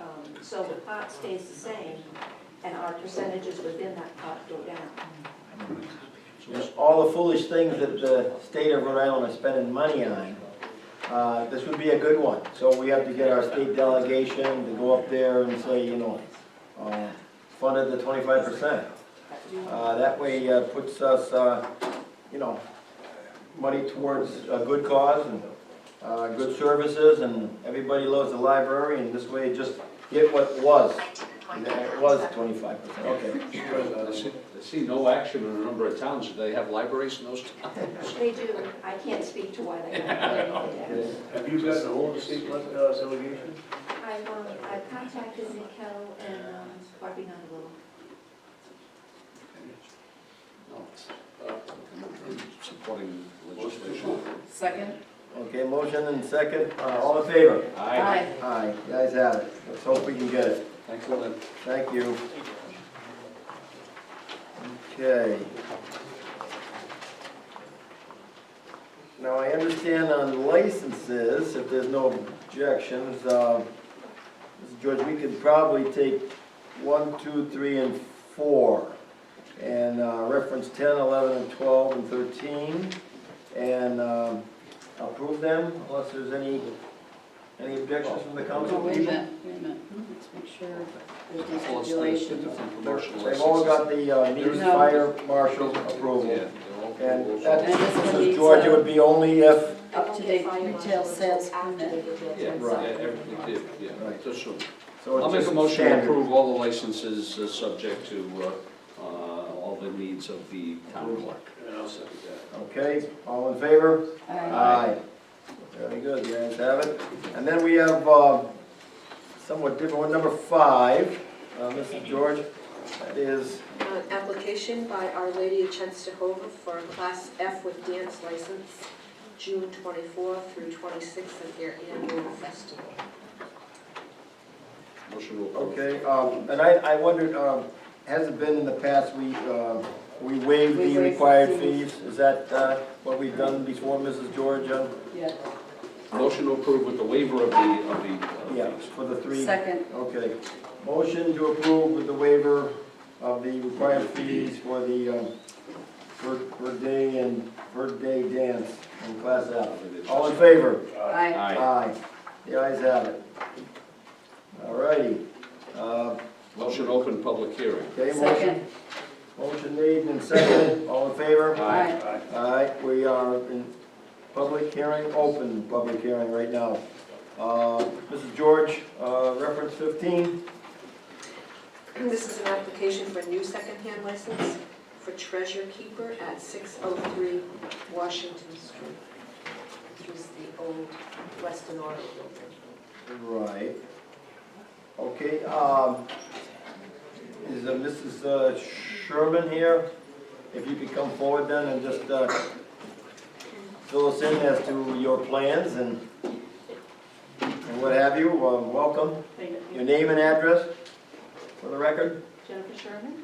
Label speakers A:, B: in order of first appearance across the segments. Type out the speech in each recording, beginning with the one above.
A: Um, So the pot stays the same, and our percentages within that pot go down.
B: And all the foolish things that the state of Rhode Island is spending money on, uh, this would be a good one. So we have to get our state delegation to go up there and say, you know, uh, funded the twenty-five percent. That way uh, puts us, uh, you know, money towards a good cause and uh, good services, and everybody loves the library, and this way just get what was. And It was twenty-five percent,
C: I
B: okay.
C: see- I see no action in a number of towns. Do they have libraries in those towns?
A: They do, I can't speak to why they don't pay anything down.
D: Have you gotten a hold of the state uh, delegation?
A: I've, um, I've contacted Nico and um, Barbie Novello.
C: No. Uh, I'm Supporting legislation.
E: Second?
B: Okay, motion and second, uh, all in favor?
C: Aye.
B: Aye, you guys have it. Let's hope we can get it.
C: Thanks, Lynn.
B: Thank you. Okay. Now, I understand on licenses, if there's no objections, uh, Mr. George, we could probably take one, two, three, and four, and uh, reference 10, 11, and 12, and 13, and um, approve them unless there's any, any objections from the council
E: Oh, wait a
B: people?
E: minute, wait a minute. Let's make sure
C: Well,
E: there's no
C: it's it's
E: stipulation.
C: different from commercial
B: They've all got
C: licenses.
B: the uh, needed
E: No.
B: fire marshal
C: Yeah,
B: approval.
C: they're all
B: And
C: approvals.
B: that,
E: And this one
B: Mrs.
E: needs,
B: George, it
E: uh,
B: would be only if,
E: Up-to-date retail sales permit.
C: Yeah,
B: Right.
C: yeah, everything did, yeah,
B: Right.
C: just so.
B: so
C: I'll
B: it's
C: make a
B: just
C: motion to
B: standard.
C: approve all the licenses, uh, subject to, uh, uh, all the needs of the town clerk.
D: And I'll second
B: Okay, all in favor?
E: Aye.
B: Aye. Very good, you guys have it. And then we have uh, somewhat different one, number five, uh, Mrs. George, that is,
F: Uh, Application by Our Lady of Chenstohova for a Class F with dance license, June 24 through 26 of their annual festival.
C: Motion to approve.
B: okay, um, and I, I wondered, um, has it been in the past, we, uh, we waived
E: We waived
B: the
E: the
B: required
E: fees.
B: fees? Is that uh, what we've done before, Mrs. George? uh,
E: Yeah.
C: Motion to approve with the waiver of the, of the. uh,
B: Yeah, for the three.
E: Second,
B: Okay, motion to approve with the waiver of the required fees for the, um, per, per day and per day dance in class F. All in favor?
E: aye.
C: Aye.
B: Aye. The ayes have it. All righty. Uh,
C: Motion to open public hearing.
B: okay, motion,
E: Second,
B: motion made and seconded, all in favor?
C: Aye.
E: aye.
B: Aye, we are in public hearing, open public hearing right now. Uh, Mrs. George, uh, reference fifteen?
F: This is an application for a new secondhand license for Treasure Keeper at 603 Washington Street, which is the old Weston Auto building.
B: Right. Okay, um, is uh, Mrs. uh, Sherman here? If you could come forward then and just, uh, fill us in as to your plans and, and what have you, Um, welcome.
A: Thank
B: Your name and address for the record?
A: Jennifer Sherman,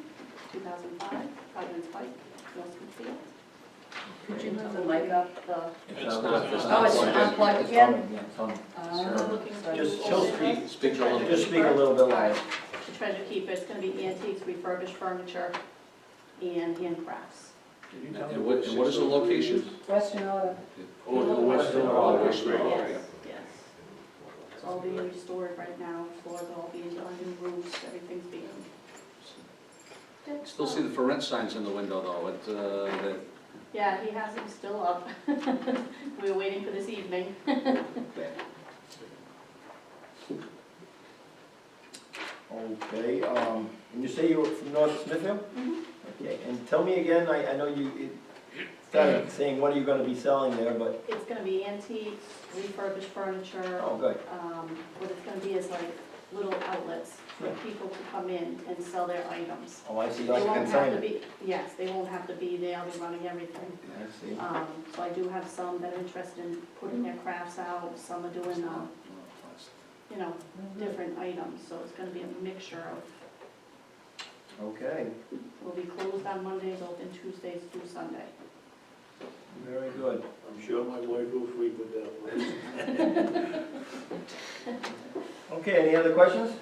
A: 2005, Providence Pike, Northfield.
E: Could you move the mic up? uh,
C: not- it's
E: Oh,
C: not
E: it's
C: plugged
E: unplugged again?
B: Sure.
E: Uh, sorry.
B: Just, she'll speak,
C: Speak to all
B: just speak a little bit louder.
A: The treasure keeper, it's gonna be antiques, refurbished furniture, and handcrafts.
D: that.
C: And what, and what is the location?
E: Western Auto.
D: Oh, the Western
C: Oh,
D: Auto.
C: Western Auto.
A: Yes, yes. It's all being restored right now, floors all being done, new roofs, everything's being.
C: Still see the for rent signs in the window though, it, uh, that,
A: Yeah, he has them still up. We were waiting for this evening.
B: Okay, um, and you say you were from North Smithfield?
A: Mhm.
B: Okay, and tell me again, I, I know you, it started saying, what are you gonna be selling there, but,
A: It's gonna be antiques, refurbished furniture.
B: oh, good.
A: um, what it's gonna be is like little outlets for
B: Yeah.
A: people to come in and sell their items.
B: Oh, I see,
A: They
B: like
A: won't have to
B: consignment.
A: be, yes, they won't have to be there, I'll be running everything.
B: I see.
A: Um, so I do have some that are interested in putting their crafts out, some are doing, uh, you know, different items, so it's gonna be a mixture of,
B: Okay,
A: we'll be closed on Mondays, open Tuesdays through Sunday.
B: very good.
D: I'm sure my wife will frequent that place.
B: Okay, any other questions?